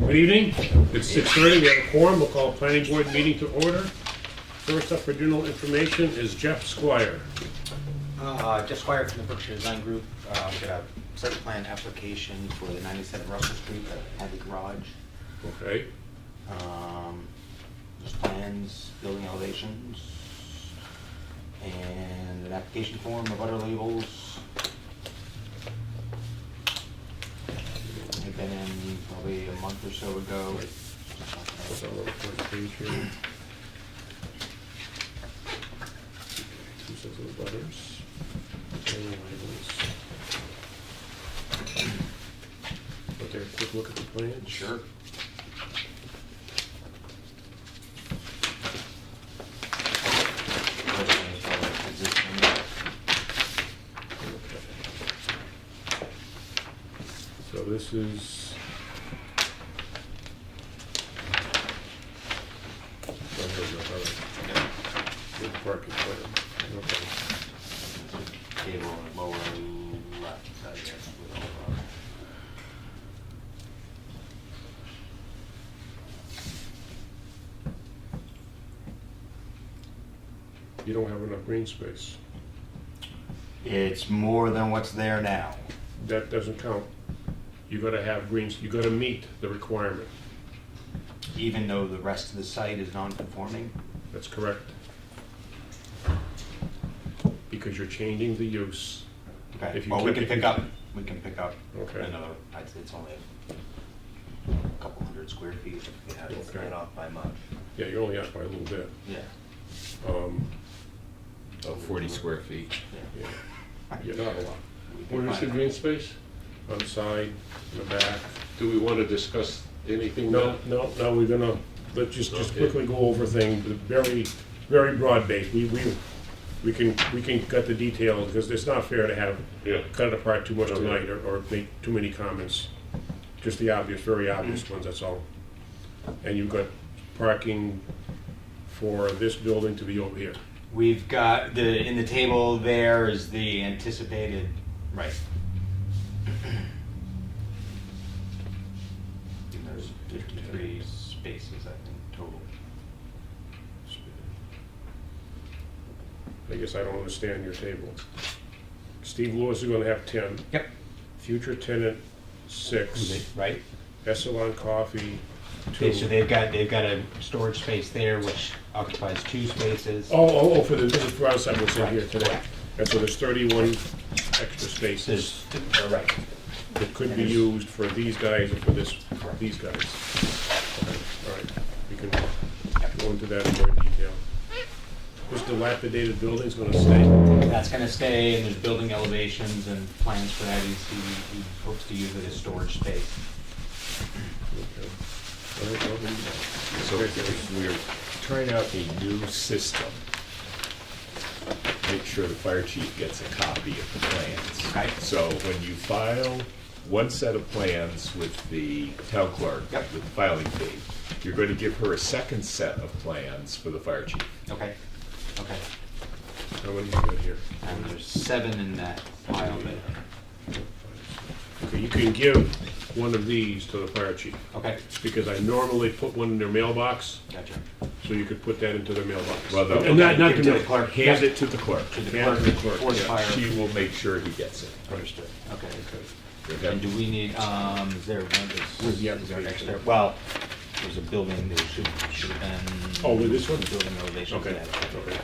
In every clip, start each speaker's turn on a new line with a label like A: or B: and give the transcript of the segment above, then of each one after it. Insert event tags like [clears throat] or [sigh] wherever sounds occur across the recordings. A: Good evening. It's 6:30. We have a quorum. We'll call planning board meeting to order. First up for general information is Jeff Squire.
B: Uh, Jeff Squire from the Berkshire Design Group, uh, got a site plan application for the 97 Russell Street that had the garage.
A: Okay.
B: Um, There's plans, building elevations, and an application form of other labels. They've been in probably a month or so ago.
A: But there, quick look at the plans.
B: Sure.
A: So this is. Oh, here we go, all right. Good parking plan. Okay.
B: Table on the lower left, I guess, with all of our-
A: You don't have enough green space.
B: It's more than what's there now.
A: That doesn't count. You gotta have greens, you gotta meet the requirement.
B: Even though the rest of the site is non-conforming,
A: That's correct. Because you're changing the use.
B: okay,
A: If you
B: well, we
A: keep-
B: can pick up, we can pick up
A: Okay.
B: another, I'd say it's only a couple hundred square feet, if we had it
A: Okay.
B: split off by much.
A: Yeah, you're only out by a little bit.
B: Yeah.
A: Um,
C: of 40 square feet.
B: yeah.
A: yeah, You're not a lot.
B: We can
D: Where is the
B: find-
D: green space?
A: On the side, in the back.
D: Do we want to discuss anything
A: No,
D: now?
A: no, no, we're gonna, let's just, just
D: Okay.
A: quickly go over things, but very, very broad base. We, we, we can, we can cut the details, because it's not fair to have,
D: Yeah.
A: cut it apart too much
D: Okay.
A: tonight, or, or make too many comments. Just the obvious, very
D: Mm.
A: obvious ones, that's all. And you've got parking for this building to be over here.
B: We've got, the, in the table there is the anticipated, right. [clears throat] And There's fifty-three spaces, I think, total.
A: I guess I don't understand your table. Steve Lewis is gonna have ten,
B: Yep.
A: future tenant, six,
B: Right?
A: Essalon Coffee, two.
B: Okay, so they've got, they've got a storage space there which occupies two spaces.
A: Oh, oh, oh, for the, this is for outside, what's in
B: Right,
A: here today.
B: correct.
A: And so there's thirty-one extra spaces
B: There's, oh, right,
A: that could be used for these guys or for this, these guys. Okay, All right, we can go into that in more detail. This dilapidated building's gonna stay,
B: that's gonna stay, and there's building elevations and plans for that, he's, he he hopes to use it as storage space.
A: okay. All right, well, we-
C: So if we're trying out a new system. Make sure the fire chief gets a copy of the plans.
B: Okay.
C: So when you file one set of plans with the town clerk,
B: Yep.
C: with the filing fee, you're going to give her a second set of plans for the fire chief.
B: Okay, okay,
A: How many you got here?
B: and there's seven in that pile there,
A: Okay, you can give one of these to the fire chief,
B: okay,
A: because I normally put one in their mailbox,
B: gotcha.
A: so you could put that into their mailbox.
C: Well, no,
A: And not, not
B: give it
A: to
B: to
A: me.
B: the clerk.
C: Hand
B: Yeah.
C: it to the clerk.
B: To the
A: Yeah,
B: clerk,
A: the clerk,
B: or the
A: yeah.
B: fire,
C: She will make sure he gets it.
B: understood, okay.
C: Okay?
B: And do we need, um, is there one that's?
A: Where's the
B: is there an
A: application?
B: extra- Well, there's a building that should, should have been.
A: Oh, with this one?
B: Building elevation.
A: Okay, okay.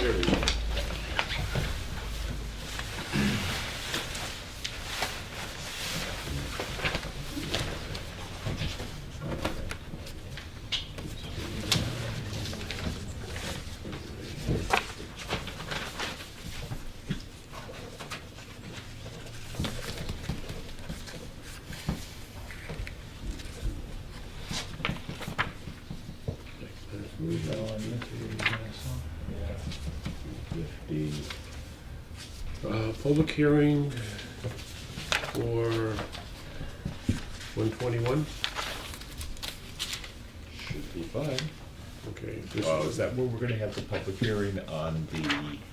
A: There we go. Uh, Public hearing for 121?
C: Should be fine.
A: Okay. this
C: Oh,
A: is-
C: Uh, is that where we're gonna have the public hearing on the